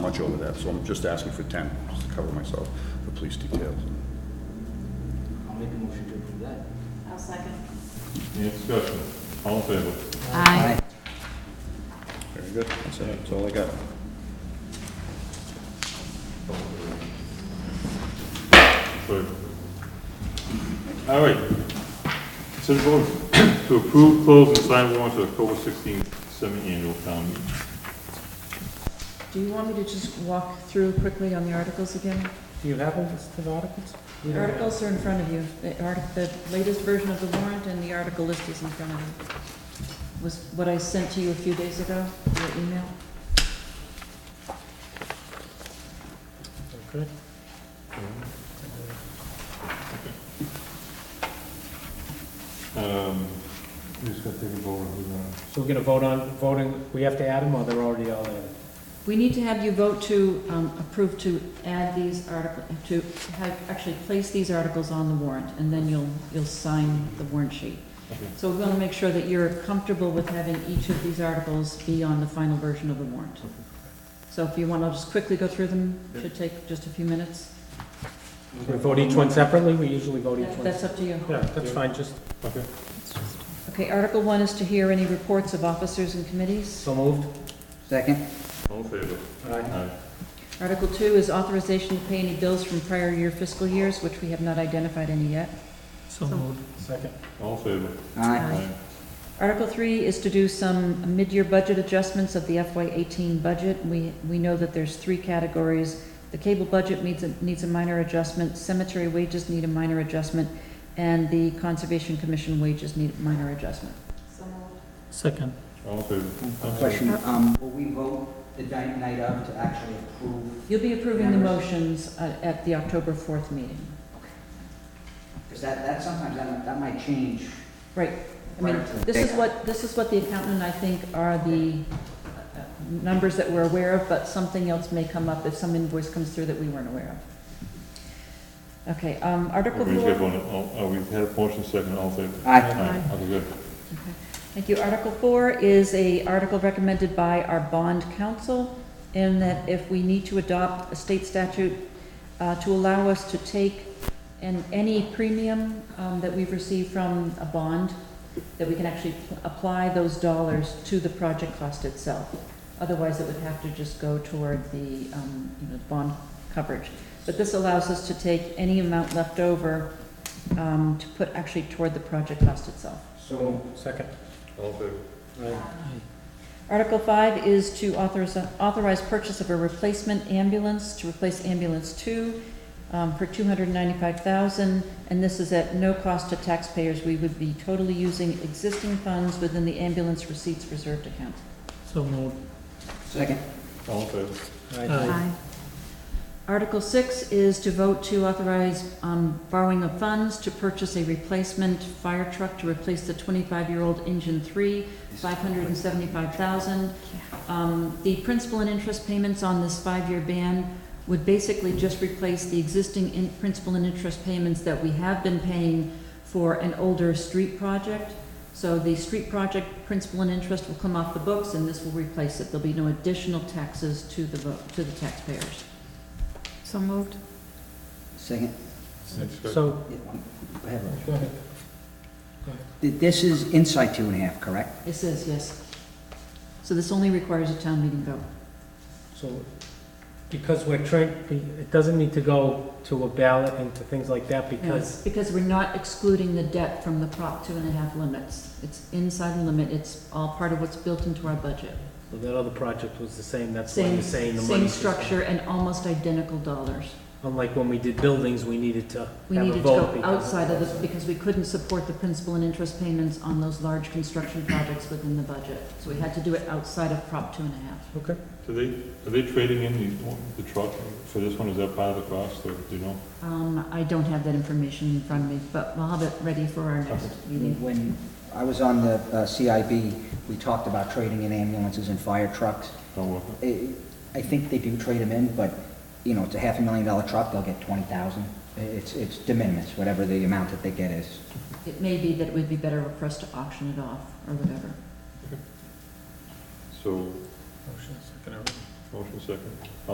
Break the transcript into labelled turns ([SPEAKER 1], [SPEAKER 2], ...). [SPEAKER 1] much over that, so I'm just asking for 10, just to cover myself for police details.
[SPEAKER 2] I'll make a motion to approve that.
[SPEAKER 3] I'll second.
[SPEAKER 4] Any discussion? All in favor?
[SPEAKER 3] Aye.
[SPEAKER 1] Very good, that's it, that's all I got.
[SPEAKER 4] Sorry. All right. Consider vote to approve, close, and sign warrants for the October 16th semi-annual town meeting.
[SPEAKER 5] Do you want me to just walk through quickly on the articles again?
[SPEAKER 6] Do you have a list of articles?
[SPEAKER 5] The articles are in front of you. The art, the latest version of the warrant and the article list is in front of you. Was what I sent to you a few days ago, your email?
[SPEAKER 6] Okay.
[SPEAKER 4] Um, we just gotta take a vote on who's on.
[SPEAKER 6] So we're gonna vote on, voting, we have to add them, or they're already all in?
[SPEAKER 5] We need to have you vote to um, approve to add these article, to have, actually place these articles on the warrant, and then you'll, you'll sign the warrant sheet.
[SPEAKER 4] Okay.
[SPEAKER 5] So we want to make sure that you're comfortable with having each of these articles be on the final version of the warrant. So if you want, I'll just quickly go through them, should take just a few minutes.
[SPEAKER 6] We vote each one separately, we usually vote each one.
[SPEAKER 5] That's up to you.
[SPEAKER 6] Yeah, that's fine, just,
[SPEAKER 4] Okay.
[SPEAKER 5] Okay, Article One is to hear any reports of officers and committees.
[SPEAKER 6] so moved?
[SPEAKER 2] Second?
[SPEAKER 4] All in favor? Aye.
[SPEAKER 5] Article Two is authorization to pay any bills from prior year fiscal years, which we have not identified any yet.
[SPEAKER 6] So moved. Second.
[SPEAKER 4] All in favor?
[SPEAKER 2] Aye.
[SPEAKER 5] Aye. Article three is to do some mid-year budget adjustments of the FY eighteen budget. We, we know that there's three categories. The cable budget needs, a- needs a minor adjustment, cemetery wages need a minor adjustment, and the conservation commission wages need a minor adjustment.
[SPEAKER 3] So moved.
[SPEAKER 6] Second.
[SPEAKER 4] All in favor? I'm sorry.
[SPEAKER 2] Question, um, will we vote the night night of to actually approve?
[SPEAKER 5] You'll be approving the motions uh, at the October fourth meeting.
[SPEAKER 2] Because that, that sometimes, that that might change.
[SPEAKER 5] Right, I mean,
[SPEAKER 2] Right, so
[SPEAKER 5] this is
[SPEAKER 2] they-
[SPEAKER 5] what, this is what the accountant and I think are the uh, uh, numbers that we're aware of, but something else may come up if some invoice comes through that we weren't aware of. Okay, um, Article
[SPEAKER 4] We just got
[SPEAKER 5] four,
[SPEAKER 4] one, oh, oh, we had a motion second, all in favor?
[SPEAKER 2] Aye.
[SPEAKER 4] Aye. Okay, good.
[SPEAKER 5] thank you, Article four is a article recommended by our bond council in that if we need to adopt a state statute uh, to allow us to take an, any premium um, that we've received from a bond, that we can actually pl- apply those dollars to the project cost itself. Otherwise, it would have to just go toward the, um, you know, bond coverage. But this allows us to take any amount left over um, to put actually toward the project cost itself.
[SPEAKER 2] So moved.
[SPEAKER 6] Second.
[SPEAKER 4] All in favor?
[SPEAKER 5] Article five is to authorize, authorize purchase of a replacement ambulance to replace ambulance two um, for two hundred ninety-five thousand, and this is at no cost to taxpayers. We would be totally using existing funds within the ambulance receipts reserved account.
[SPEAKER 6] So moved.
[SPEAKER 2] Second?
[SPEAKER 4] All in favor?
[SPEAKER 5] Article six is to vote to authorize um, borrowing of funds to purchase a replacement fire truck to replace the 25-year-old engine three, 575,000. Um, The principal and interest payments on this five-year ban would basically just replace the existing in- principal and interest payments that we have been paying for an older street project. So the street project principal and interest will come off the books, and this will replace it. There'll be no additional taxes to the, vo- to the taxpayers.
[SPEAKER 3] So moved.
[SPEAKER 2] Second.
[SPEAKER 4] Any discussion?
[SPEAKER 6] So,
[SPEAKER 2] Yeah, one. Go ahead, Rose.
[SPEAKER 6] go ahead.
[SPEAKER 2] Th- This is inside two and a half, correct?
[SPEAKER 5] It says, yes. So this only requires a town meeting vote.
[SPEAKER 6] So, because we're trying, it doesn't need to go to a ballot and to things like that, because
[SPEAKER 5] Because we're not excluding the debt from the Prop two and a half limits. It's inside the limit, it's all part of what's built into our budget.
[SPEAKER 6] So that other project was the same, that's why
[SPEAKER 5] Same,
[SPEAKER 6] you're saying the money.
[SPEAKER 5] same structure and almost identical dollars.
[SPEAKER 6] Unlike when we did buildings, we needed to
[SPEAKER 5] We
[SPEAKER 6] have a
[SPEAKER 5] needed to
[SPEAKER 6] vote.
[SPEAKER 5] go
[SPEAKER 6] because-
[SPEAKER 5] outside of this because we couldn't support the principal and interest payments on those large construction projects within the budget. So we had to do it outside of Prop two and a half.
[SPEAKER 6] Okay,
[SPEAKER 4] Do they, are they trading in the, the truck for this one? Is that part of the cost or do you know?
[SPEAKER 5] Um, I don't have that information in front of me, but I'll have it ready for our next meeting.
[SPEAKER 2] When I was on the uh, CIB, we talked about trading in ambulances and fire trucks.
[SPEAKER 4] Don't work.
[SPEAKER 2] I I think they do trade them in, but, you know, it's a half a million dollar truck, they'll get 20,000. It's, it's de minimis, whatever the amount that they get is.
[SPEAKER 5] It may be that it would be better for us to auction it off or whatever.
[SPEAKER 4] So,
[SPEAKER 6] Motion, second, everything.
[SPEAKER 4] motion second.